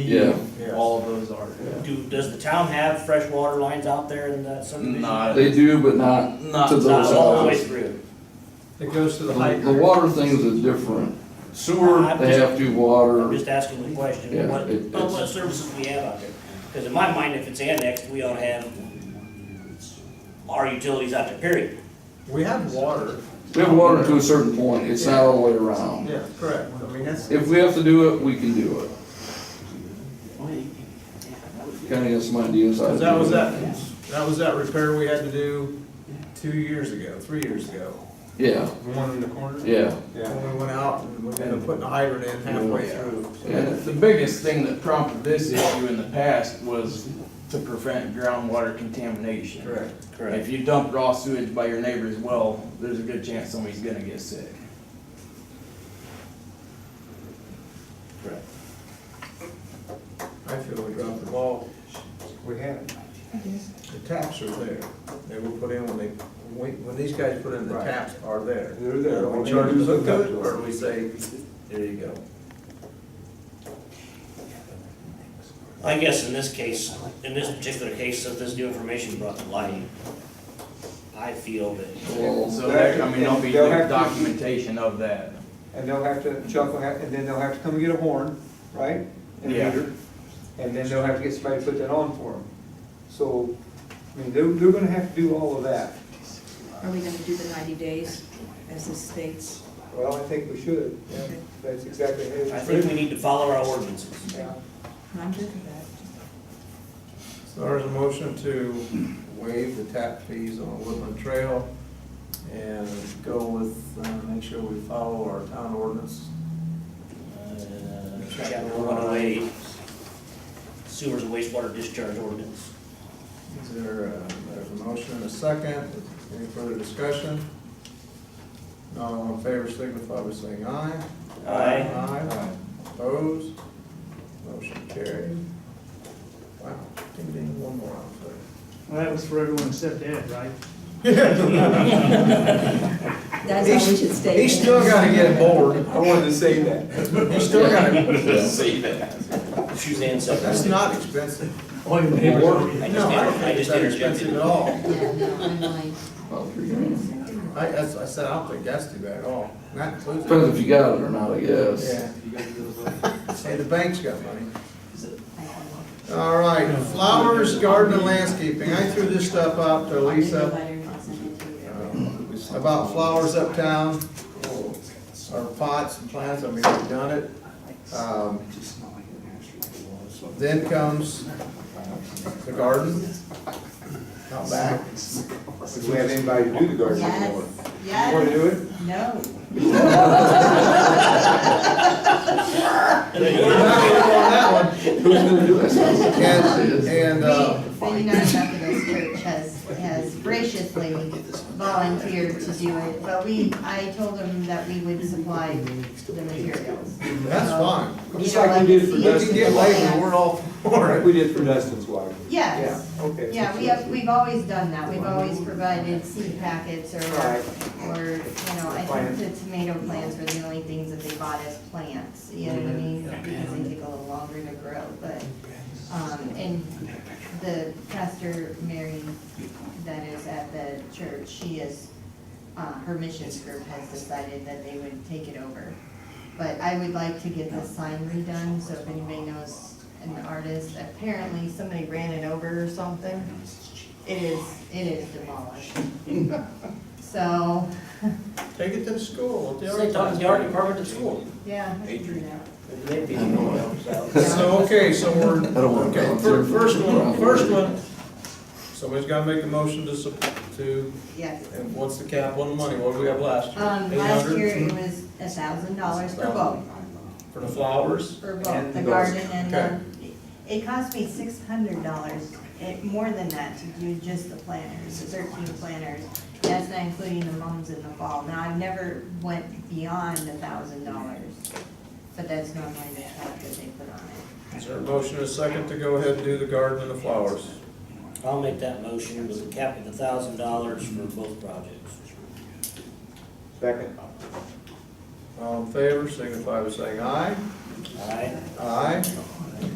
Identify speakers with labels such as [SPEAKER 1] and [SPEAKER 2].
[SPEAKER 1] Yeah.
[SPEAKER 2] All of those are.
[SPEAKER 3] Do, does the town have fresh water lines out there in that subdivision?
[SPEAKER 2] Not-
[SPEAKER 3] Not
[SPEAKER 1] They do, but not,
[SPEAKER 2] Not
[SPEAKER 1] To those
[SPEAKER 3] all the way
[SPEAKER 1] houses.
[SPEAKER 3] through.
[SPEAKER 4] It goes to the
[SPEAKER 1] the
[SPEAKER 4] height.
[SPEAKER 1] the water things are different. Sewer, they have to
[SPEAKER 3] I'm
[SPEAKER 1] water,
[SPEAKER 3] just asking the
[SPEAKER 1] Yeah,
[SPEAKER 3] question, what,
[SPEAKER 1] it-
[SPEAKER 3] but what services we have out there? Because in my mind, if it's annexed, we ought to have our utilities out there, period.
[SPEAKER 4] We have water,
[SPEAKER 1] we have water to a certain point, it's not all the way around.
[SPEAKER 4] yeah, correct, I mean, that's,
[SPEAKER 1] If we have to do it, we can do it. Kinda got some ideas. how to
[SPEAKER 4] because that
[SPEAKER 1] do
[SPEAKER 4] was
[SPEAKER 1] it.
[SPEAKER 4] that, that was that repair we had to do two years ago, three years ago.
[SPEAKER 1] Yeah,
[SPEAKER 5] The one in the corner?
[SPEAKER 1] yeah,
[SPEAKER 4] When we went out and we ended up putting a hydrant in halfway through.
[SPEAKER 1] yeah,
[SPEAKER 6] The biggest thing that prompted this issue in the past was to prevent groundwater contamination.
[SPEAKER 4] Correct.
[SPEAKER 6] If you dump raw sewage by your neighbor's well, there's a good chance somebody's gonna get sick.
[SPEAKER 4] I feel we dropped the ball.
[SPEAKER 5] We had.
[SPEAKER 4] The taps are there. They were put in when they, when, when these guys put in, the
[SPEAKER 5] Right.
[SPEAKER 4] taps are there.
[SPEAKER 5] They're there.
[SPEAKER 4] We charge them hook up, or we say, there you go.
[SPEAKER 3] I guess in this case, in this particular case, since this new information brought to light, I feel that,
[SPEAKER 1] well,
[SPEAKER 6] So that, I mean, there'll be
[SPEAKER 5] They'll have to-
[SPEAKER 6] documentation of that.
[SPEAKER 5] And they'll have to, Chuck will have, and then they'll have to come and get a horn, right? And a
[SPEAKER 6] Yeah.
[SPEAKER 5] meter. And then they'll have to get somebody to put that on for them. So, I mean, they're, they're gonna have to do all of that.
[SPEAKER 7] Are we gonna do the ninety days as this states?
[SPEAKER 5] Well, I think we should. Yeah, That's exactly it.
[SPEAKER 3] I think we need to follow our ordinances.
[SPEAKER 5] Yeah.
[SPEAKER 7] I'm good with that.
[SPEAKER 4] So there's a motion to waive the tap fees on Woodland Trail and go with, uh, make sure we follow our town ordinance.
[SPEAKER 3] Uh, Chapter one oh eight, sewers and wastewater discharge ordinance.
[SPEAKER 4] Is there, uh, there's a motion and a second, any further discussion? Not all in favor, signify by saying aye.
[SPEAKER 3] Aye.
[SPEAKER 4] Aye. Opposed? Motion carried. Wow, ding ding, one more out there.
[SPEAKER 8] Well, that was for everyone except Ed, right?
[SPEAKER 7] That's how we should state.
[SPEAKER 4] He still gotta get bored. I wanted to say that. He still gotta,
[SPEAKER 3] Suzanne said.
[SPEAKER 4] that's not expensive.
[SPEAKER 3] I
[SPEAKER 4] No,
[SPEAKER 3] just,
[SPEAKER 4] I don't
[SPEAKER 3] inter- I
[SPEAKER 4] think it's
[SPEAKER 3] just
[SPEAKER 4] that expensive
[SPEAKER 3] interjected.
[SPEAKER 4] at all.
[SPEAKER 7] Yeah, no, I'm like,
[SPEAKER 1] about three grand.
[SPEAKER 4] I, that's- I said, I don't think that's too bad at all. And That includes. it.
[SPEAKER 1] Depends if you got it or not, I guess.
[SPEAKER 4] Yeah. Hey, the bank's got money.
[SPEAKER 7] I don't
[SPEAKER 4] All right, flowers, garden, and landscaping. I threw this stuff out to
[SPEAKER 7] know. I did the
[SPEAKER 4] Lisa uh,
[SPEAKER 7] letter and I'll send it to you.
[SPEAKER 4] about flowers uptown, or pots and plants, I mean, we've done it. Um, Then comes uh, the garden, out back.
[SPEAKER 5] If we have anybody to do the garden anymore.
[SPEAKER 7] Yes,
[SPEAKER 5] You wanna
[SPEAKER 7] yes,
[SPEAKER 5] do it?
[SPEAKER 7] no.
[SPEAKER 4] We're not gonna go on that one. And, and, uh,
[SPEAKER 9] The United Methodist Church has, has graciously volunteered to do it, but we, I told them that we would supply the materials.
[SPEAKER 4] that's fine.
[SPEAKER 5] Um, Just like we did for
[SPEAKER 4] We can
[SPEAKER 5] Dustin's
[SPEAKER 4] get labor,
[SPEAKER 5] wife.
[SPEAKER 4] we're all for it.
[SPEAKER 5] Like we did for Dustin's wife.
[SPEAKER 9] Yes,
[SPEAKER 5] Yeah, okay.
[SPEAKER 9] yeah, we have, we've always done that, we've always provided seed packets or, or, you know, I think the tomato plants were the only things that they bought as plants, you know what I mean? Because they take a little longer to grow, but, um, and the pastor Mary that is at the church, she is, uh, her missions group has decided that they would take it over. But I would like to get the sign redone, so if anybody knows an artist, apparently somebody ran it over or something. It is, it is demolished. So,
[SPEAKER 4] Take it to the school.
[SPEAKER 3] They already talked to the art department at school.
[SPEAKER 9] yeah. I can do that.
[SPEAKER 3] They'd be the ones out.
[SPEAKER 4] So, okay, so we're,
[SPEAKER 1] I don't wanna
[SPEAKER 4] okay, fir-
[SPEAKER 1] volunteer for
[SPEAKER 4] first
[SPEAKER 1] the
[SPEAKER 4] one,
[SPEAKER 1] problem.
[SPEAKER 4] first one, somebody's gotta make a motion to, sup- to,
[SPEAKER 9] Yes.
[SPEAKER 4] and what's the cap on the money, what do we have last year?
[SPEAKER 9] Um, last
[SPEAKER 4] 800?
[SPEAKER 9] year it was a thousand dollars for both,
[SPEAKER 4] For the flowers?
[SPEAKER 9] for
[SPEAKER 4] And
[SPEAKER 9] both, the
[SPEAKER 4] those.
[SPEAKER 9] garden and the, it cost me six hundred dollars, it, more than that to do just the planters, the thirteen planters. That's not including the mums in the fall. Now, I've never went beyond a thousand dollars, but that's normally the cap that they put on it.
[SPEAKER 4] Is there a motion and a second to go ahead and do the garden and the flowers?
[SPEAKER 3] I'll make that motion with a cap of a thousand dollars for both projects.
[SPEAKER 5] Second.
[SPEAKER 4] All in favor, signify by saying aye.
[SPEAKER 3] All right?
[SPEAKER 4] Aye.